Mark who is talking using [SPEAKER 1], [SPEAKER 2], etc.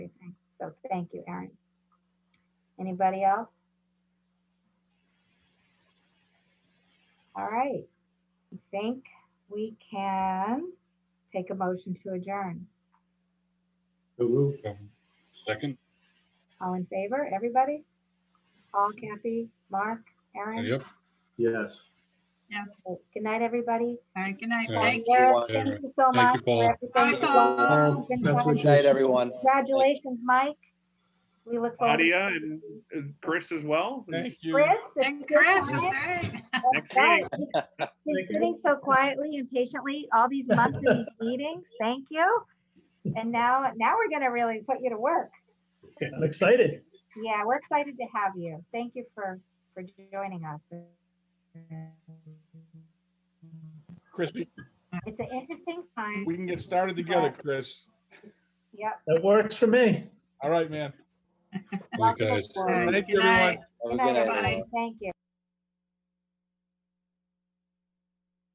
[SPEAKER 1] Thank you, Erin. Anybody else? All right. I think we can take a motion to adjourn.
[SPEAKER 2] So moved.
[SPEAKER 3] Second,
[SPEAKER 1] All in favor, everybody? All Kathy, Mark, Erin?
[SPEAKER 3] yep.
[SPEAKER 2] Yes.
[SPEAKER 4] Yes.
[SPEAKER 1] Good night, everybody.
[SPEAKER 4] All right, good night.
[SPEAKER 3] Yeah.
[SPEAKER 4] Thank you.
[SPEAKER 1] Eric,
[SPEAKER 5] everyone.
[SPEAKER 1] Thank you so
[SPEAKER 3] Thank you,
[SPEAKER 1] much
[SPEAKER 3] Paul.
[SPEAKER 1] for everything.
[SPEAKER 4] Bye,
[SPEAKER 1] that
[SPEAKER 2] Paul.
[SPEAKER 1] you've been
[SPEAKER 2] Best
[SPEAKER 1] doing.
[SPEAKER 2] wishes.
[SPEAKER 5] Night, everyone.
[SPEAKER 1] Congratulations, Mike. We look forward. to-
[SPEAKER 6] Nadia and and Chris as well.
[SPEAKER 3] Thank you.
[SPEAKER 1] Chris? it's
[SPEAKER 4] Thanks,
[SPEAKER 1] your
[SPEAKER 4] Chris. That's
[SPEAKER 1] time.
[SPEAKER 4] all right.
[SPEAKER 6] Next
[SPEAKER 1] Right.
[SPEAKER 6] meeting.
[SPEAKER 1] Been sitting so quietly and patiently all these months in these meetings. Thank you. And now, now we're gonna really put you to work.
[SPEAKER 7] I'm excited.
[SPEAKER 1] Yeah, we're excited to have you. Thank you for, for joining us.
[SPEAKER 8] Chris, we-
[SPEAKER 1] It's an interesting time.
[SPEAKER 8] we can get started together, Chris.
[SPEAKER 1] Yep.
[SPEAKER 7] That works for me.
[SPEAKER 8] All right, man.
[SPEAKER 3] Thank you, guys.
[SPEAKER 1] Welcome aboard.
[SPEAKER 8] Thank you,
[SPEAKER 4] Good
[SPEAKER 8] everyone.
[SPEAKER 4] night.
[SPEAKER 5] Have a
[SPEAKER 1] Good night,
[SPEAKER 5] good night,
[SPEAKER 4] bye.
[SPEAKER 5] everyone.
[SPEAKER 1] everyone. Thank you.